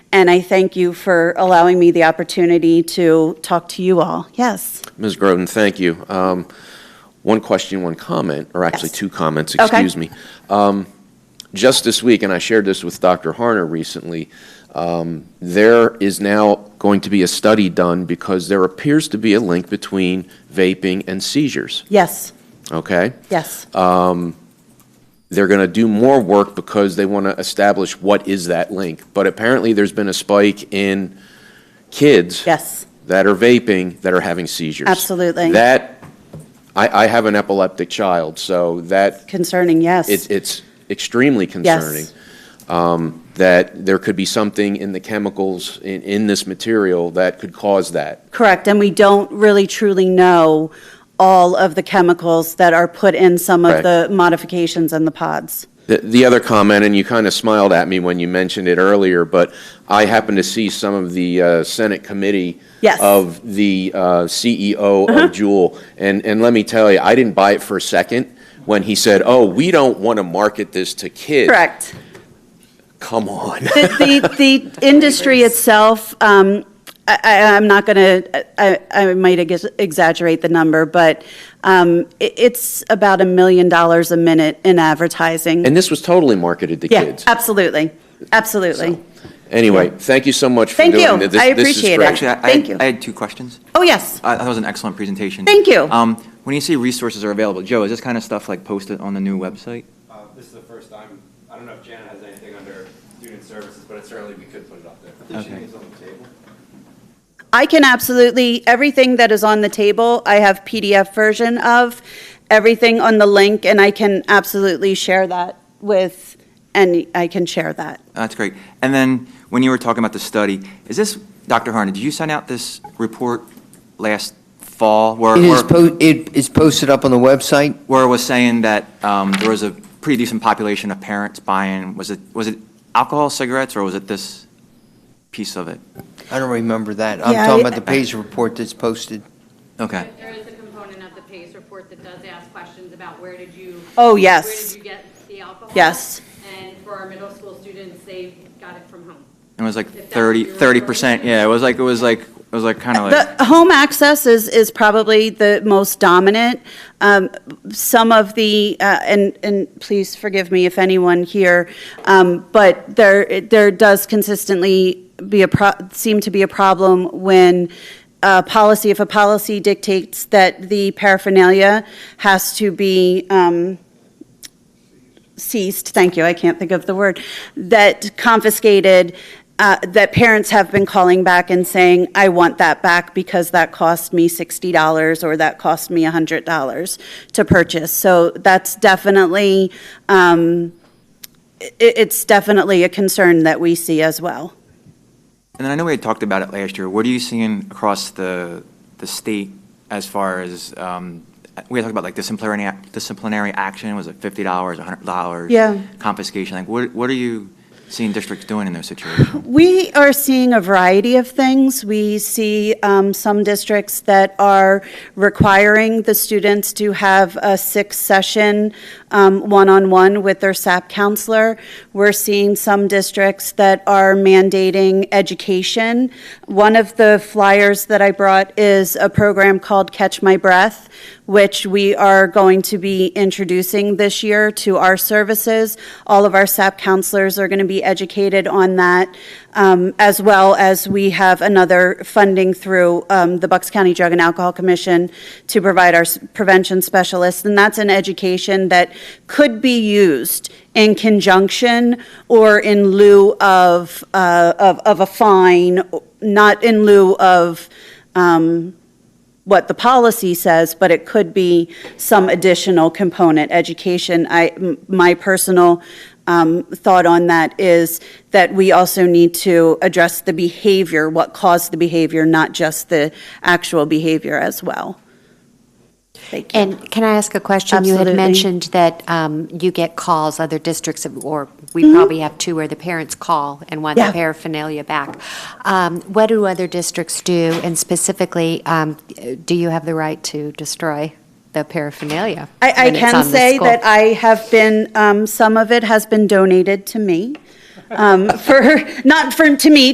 And I thank you for allowing me the opportunity to talk to you all. Yes. Ms. Groden, thank you. Um, One question, one comment, or actually Yes. two comments, Okay. excuse me. Um, Just this week, and I shared this with Dr. Harner recently, um, there is now going to be a study done because there appears to be a link between vaping and seizures, Yes. okay? Yes. Uh, they're going to do more work because they want to establish what is that link. But apparently, there's been a spike in kids Yes. that are vaping that are having seizures. Absolutely. That I, I have an epileptic child, so that Concerning, yes. it's it's extremely concerning Yes. um, that there could be something in the chemicals in, in this material that could cause that. Correct. And we don't really truly know all of the chemicals that are put in some of Correct. the modifications in the pods. The, the other comment, and you kind of smiled at me when you mentioned it earlier, but I happened to see some of the uh, Senate committee Yes. Uh-huh. of the uh, CEO of Juul, and, and let me tell you, I didn't buy it for a second when he said, "Oh, we don't want to market this to kids." Correct. Come on. The, the, the industry itself, um, I, I, I'm not gonna, I, I might ex- exaggerate the number, but, um, it, it's about a million dollars a minute in advertising. And this was totally marketed to Yeah, kids. absolutely, absolutely. Anyway, thank you so much for Thank you. doing this. I This is appreciate it. great. Actu- Actually, I- I, Thank you. had- I had two questions. Oh, yes, I, that was an excellent presentation. Thank you. Um, when you say resources are available, Joe, is this kind of stuff like posted on the new website? Uh, This is the first time, I don't know if Janet has anything under student services, but it certainly, we could put it up there. Did she Okay. leave this on the table? I can absolutely, everything that is on the table, I have PDF version of, everything on the link, and I can absolutely share that with, and I can share that. That's great. And then when you were talking about the study, is this, Dr. Harney, did you send out this report last fall? where- It is, where- po- it is posted up on the website. where it was saying that um, there was a pretty decent population of parents buying, was it, was it alcohol, cigarettes, or was it this piece of it? I don't remember that. I'm Yeah, talking I- about the PACE report that's posted. Okay. There is a component of the PACE report that does ask questions about where did you? Oh, yes. Where did you get the alcohol? Yes. And for our middle school students, they got it from home. It was like If that's 30, what you were 30%, referring to. yeah, it was like, it was like, it was like kind of like, The home access is, is probably the most dominant. Um, Some of the, uh, and, and please forgive me if anyone here, um, but there, there does consistently be a, pro- seem to be a problem when uh policy, if a policy dictates that the paraphernalia has to be um, seized, thank you, I can't think of the word, that confiscated, uh, that parents have been calling back and saying, I want that back because that cost me $60 or that cost me $100 to purchase. So that's definitely, um, i- it's definitely a concern that we see as well. and then I know we had talked about it last year, what are you seeing across the, the state as far as, um, we had talked about like disciplinary, ac- disciplinary action, was it $50, $100? Yeah. Confiscation, like what, what are you seeing districts doing in those situations? We are seeing a variety of things. We see um, some districts that are requiring the students to have a six-session um, one-on-one with their SAP counselor. We're seeing some districts that are mandating education. One of the flyers that I brought is a program called Catch My Breath, which we are going to be introducing this year to our services. All of our SAP counselors are going to be educated on that, um, as well as we have another funding through um, the Bucks County Drug and Alcohol Commission to provide our s- prevention specialists. And that's an education that could be used in conjunction or in lieu of, uh, of, of a fine, not in lieu of, um, what the policy says, but it could be some additional component. Education, I, m- my personal um, thought on that is that we also need to address the behavior, what caused the behavior, not just the actual behavior as well. Thank you. And can I ask a question? You Absolutely. had mentioned that um, you get calls, other districts, have- or we probably have two where the parents call and want Mm-hmm. Yeah. the paraphernalia back. Um, What do other districts do? And specifically, um, do you have the right to destroy the paraphernalia? I, I when it's can on the say school? that I have been, um, some of it has been donated to me, um, for, not for, to me,